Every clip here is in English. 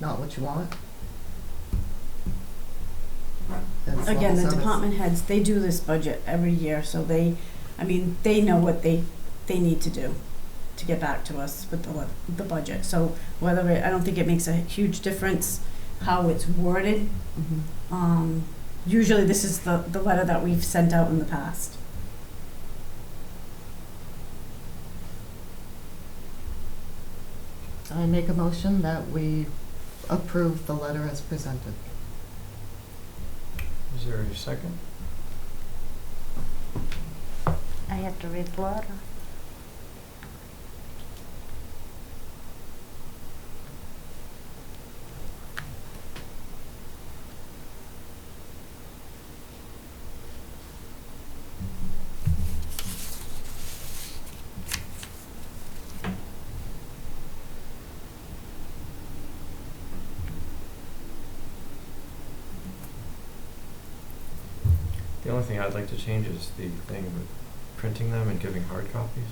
not what you want? As long Again, as the I'm- department heads, they do this budget every year, so they, I mean, they know what they, they need to do to get back to us with the, the budget. So whether, it- I don't think it makes a huge difference how it's worded. Mhm. Um, usually this is the, the letter that we've sent out in the past. I make a motion that we approve the letter as presented. Is there a second? I have to read the letter. The only thing I'd like to change is the thing with printing them and giving hard copies.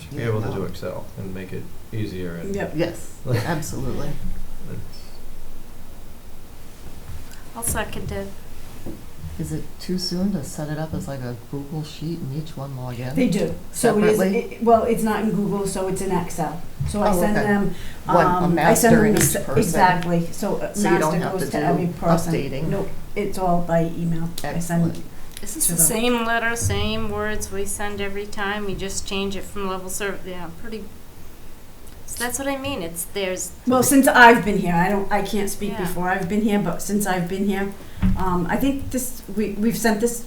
Should be Yeah, able to do no. Excel and make it easier and. Yep. Yes, absolutely. it's- I'll second it. Is it too soon to set it up as like a Google sheet and each one log in? They do. So it is, Separately? it- well, it's not in Google, so it's in Excel. So I Oh, send okay. them, One- a um, I master send them, in the each s- person. exactly, so uh, So you don't master have to goes to do every person. updating. Nope, it's all by email. I send Excellent. This To is the the- same letter, same words we send every time, we just change it from level serv, yeah, pretty. So that's what I mean, it's, there's, Well, since I've been here, I don't, I can't speak Yeah. before I've been here, but since I've been here, um, I think this, we, we've sent this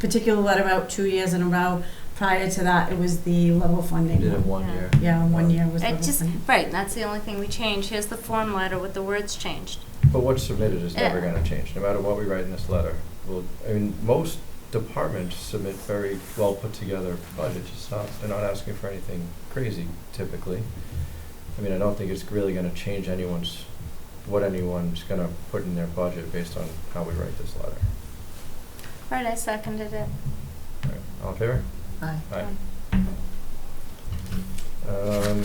particular letter out two years in a row. Prior to that, it was the level We did funding. it one Yeah. year. Yeah, one year was it level just, funding. right, that's the only thing we change, here's the form letter with the words changed. But what's submitted is never Yeah. gonna change, no matter what we write in this letter. Well, I mean, most departments submit very well put together budgets, it's not, they're not asking for anything crazy typically. I mean, I don't think it's really gonna change anyone's, what anyone's gonna put in their budget based on how we write this letter. Right, I seconded it. All right, All in favor? Aye. Aye. Um,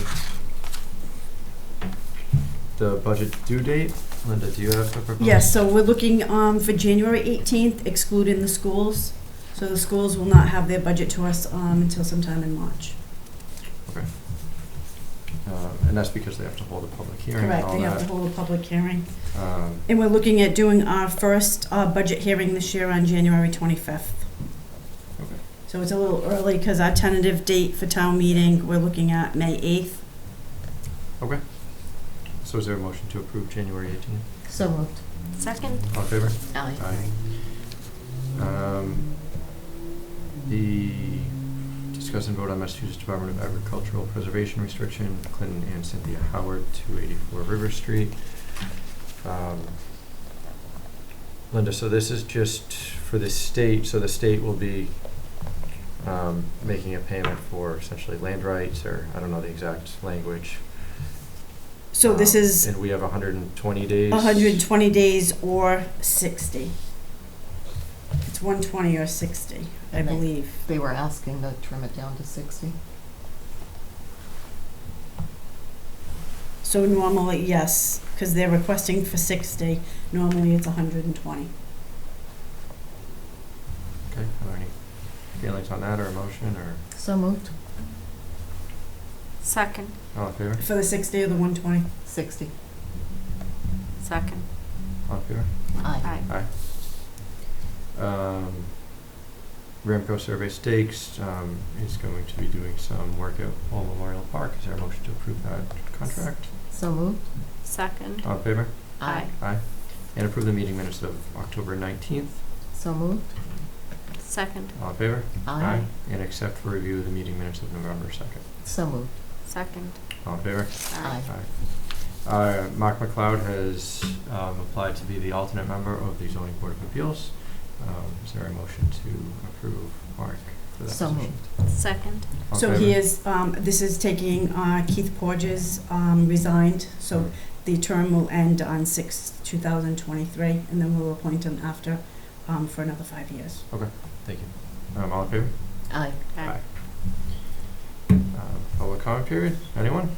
the budget due date, Linda, do you have the proposed? Yes, so we're looking, um, for January eighteenth excluding the schools. So the schools will not have their budget to us, um, until sometime in March. Um, and that's because they have to hold a public hearing and Correct, all they have to that. hold a public hearing. Um, And we're looking at doing our first uh, budget hearing this year on January 25th. Okay. So it's a little early because our tentative date for town meeting, we're looking at May 8th. so is there a motion to approve January eighteenth? So moved. Second, All in favor? Aye. Um, the discuss and vote on Massachusetts Department of Agricultural Preservation Restriction, Clinton and Cynthia Howard, two eighty-four River Street. Um, Linda, so this is just for the state, so the state will be, um, making a payment for essentially land rights, or I don't know the exact language. So this Um, is And we have hundred and twenty days. 120 days or 60. It's 120 or 60, I Right. believe. They were asking to trim it down to sixty. So normally, yes, because they're requesting for 60, normally it's 120. Okay, are there any feelings on that, or a motion, or So moved. second, all in favor? For the 60 or the 120? Sixty. second, All in favor? Aye. aye. Um, Ramco Survey Stakes um, is going to be doing some work at Old Memorial Park. Is there a motion to approve that contract? So moved. Second, All in favor? aye. And approve the meeting minutes of October 19th. So moved. Second, All in favor? And accept for review the meeting minutes of November 2nd. So moved. second, All in favor? aye. Aye. Uh, Mark McLeod has um, applied to be the alternate member of the Zoning Board of Appeals. Um, Is there a motion to approve Mark for that So position? moved. Second, All in So he favor? is, um, this is taking uh, Keith Porges um, resigned, so the term will end on six, two thousand twenty-three, and then we'll appoint him after, um, for another five years. Thank you. Um, All in favor? Aye. aye. Uh, Public comment period, anyone?